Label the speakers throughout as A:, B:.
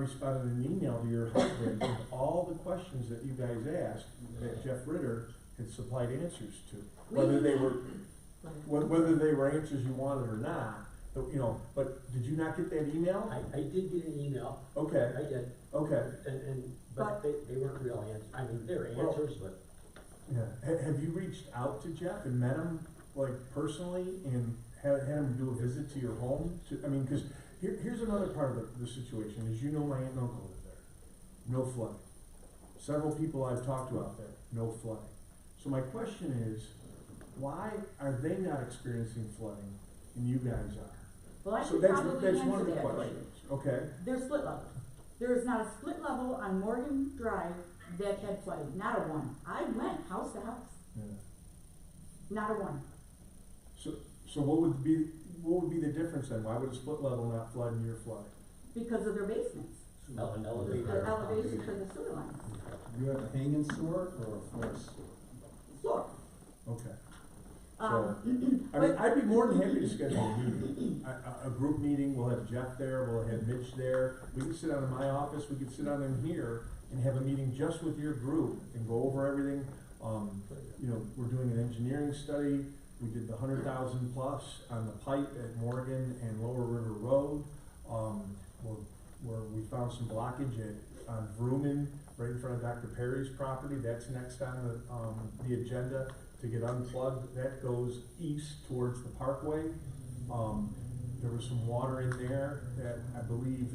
A: responded in an email to your husband with all the questions that you guys asked that Jeff Ritter had supplied answers to. Whether they were, wh- whether they were answers you wanted or not, but, you know, but did you not get that email?
B: I, I did get an email, I
A: Okay,
B: did,
A: okay,
B: and, and, but they, they weren't real answers, I mean, they were
A: Well-
B: answers, but
A: yeah. Ha- have you reached out to Jeff and met him, like, personally and had, had him do a visit to your home? To, I mean, cause here, here's another part of the, the situation, is you know my aunt and uncle live there. no flooding. Several people I've talked to out there, no flooding. So my question is, why are they not experiencing flooding and you guys are?
C: Well, I
A: So
C: could
A: that's,
C: probably
A: that's one
C: answer
A: of the
C: that for you.
A: questions, okay?
C: They're split levels. There is not a split level on Morgan Drive that had flooding, not a one. I went house to house, not a one.
A: So, so what would be, what would be the difference then? Why would a split level not flood and your flood?
C: Because of their basements,
B: ele-
C: their
B: elevator.
C: elevation for the sewer lines,
D: You have a hanging sewer or a floor sewer?
C: floor.
A: Okay.
C: Um,
A: I mean, I'd be more than happy to schedule a meeting, a, a, a group meeting, we'll have Jeff there, we'll have Mitch there, we can sit down in my office, we could sit down in here and have a meeting just with your group and go over everything, um, you know, we're doing an engineering study, we did the hundred thousand plus on the pipe at Morgan and Lower River Road, um, where, where we found some blockage at, on Vrooman, right in front of Dr. Perry's property, that's next on the, um, the agenda to get unplugged, that goes east towards the parkway. Um, there was some water in there that I believe,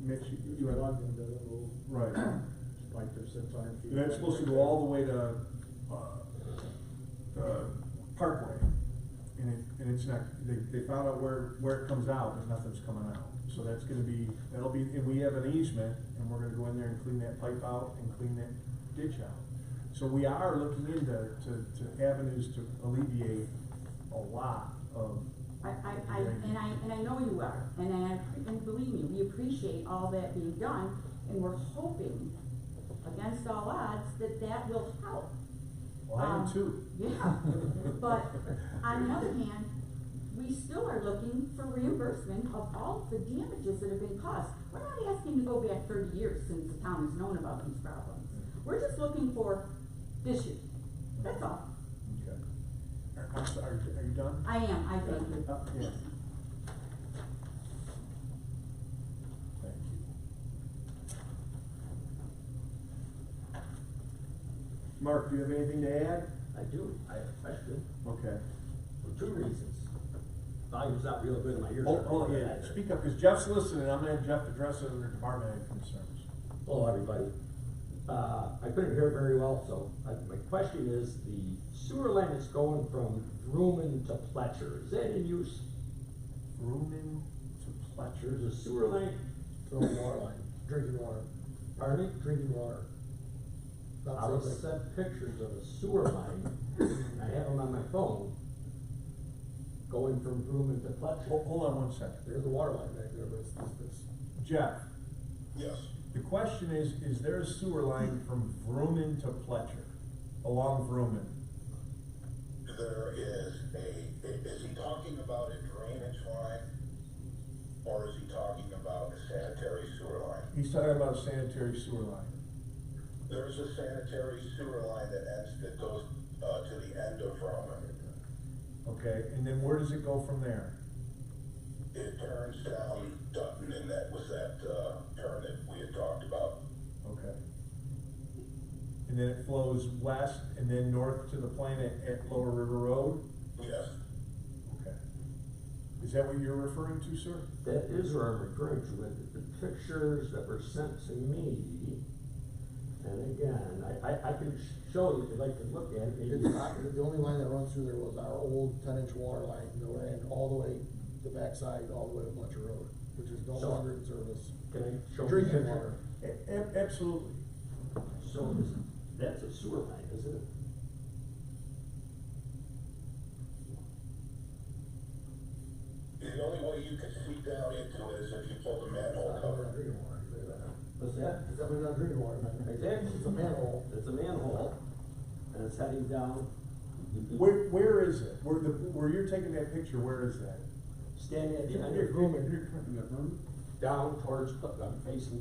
A: Mitch, you- you had, right,
E: like there's six hundred feet.
A: and that's supposed to go all the way to, uh, the parkway. And it, and it's not, they, they found out where, where it comes out, and nothing's coming out. So that's gonna be, that'll be, and we have an easement, and we're gonna go in there and clean that pipe out and clean that ditch out. So we are looking into, to, to avenues to alleviate a lot of,
C: I, I, I, and I, and I know you are, and I, and believe me, we appreciate all that being done, and we're hoping, against all odds, that that will help.
A: well, I am
C: Um,
A: too.
C: Yeah, but on the other hand, we still are looking for reimbursement of all the damages that have been caused. We're not asking to go back thirty years since the town has known about these problems. We're just looking for this year, that's all.
A: Okay. Are, I'm sorry, are you- are you done?
C: I am, I thank you.
A: Uh, yeah. Thank you. Mark, do you have anything to add?
B: I do, I have a question,
A: Okay.
B: for two reasons. Volume's not real good in my ears.
A: Hold, hold, Oh, yeah, speak up, because Jeff's listening, I'm gonna have Jeff address it under department head concerns.
B: Hello, everybody. Uh, I couldn't hear very well, so uh, my question is, the sewer line that's going from Vrooman to Pletcher, is that in use?
A: Rumen to
B: There's
A: Pletcher,
B: a sewer line,
E: Throwing water line, drinking water,
B: pardon me?
E: drinking water.
B: I
E: Not
B: was
E: something.
B: sent pictures of a sewer line, and I have them on my phone, going from Vrooman to
A: hold,
B: Pletcher.
A: hold on one second.
E: There's a water line back there, but it's, it's, it's.
A: Jeff,
E: Yes.
A: the question is, is there a sewer line from Vrooman to Pletcher, along Vrooman?
F: There is a, is he talking about a drainage line? Or is he talking about a sanitary sewer line?
A: He's talking about a sanitary sewer line.
F: There's a sanitary sewer line that ends, that goes, uh, to the end of Roman.
A: Okay, and then where does it go from there?
F: It turns down Dutton and that was that, uh, turn that we had talked about.
A: Okay. And then it flows west and then north to the planet at Lower River Road?
F: Yes,
A: Okay. Is that what you're referring to, sir?
B: That is where I'm referring to, and the pictures that were sent to me, and again, I, I, I can show you, if you'd like to look at it, maybe.
E: It's not, the only line that runs through there was our old ten inch water line, that ran all the way, the backside, all the way to Fletcher Road, which is no
B: So-
E: longer in service.
B: Can I show you?
E: Drinking water.
A: A- a- absolutely.
B: So is, that's a sewer line, isn't it?
F: the only way you could see down into it is if you pull the manhole cover.
E: Drinking water, you know that.
B: What's that?
E: It's definitely not drinking water, man.
B: Exactly.
E: It's a manhole.
B: It's a manhole, and it's heading down
A: Where, where is it? Where the, where you're taking that picture, where is that?
B: standing at the end
E: You're
B: of Grumman,
E: grooming, you're-
B: down towards, Put- I'm facing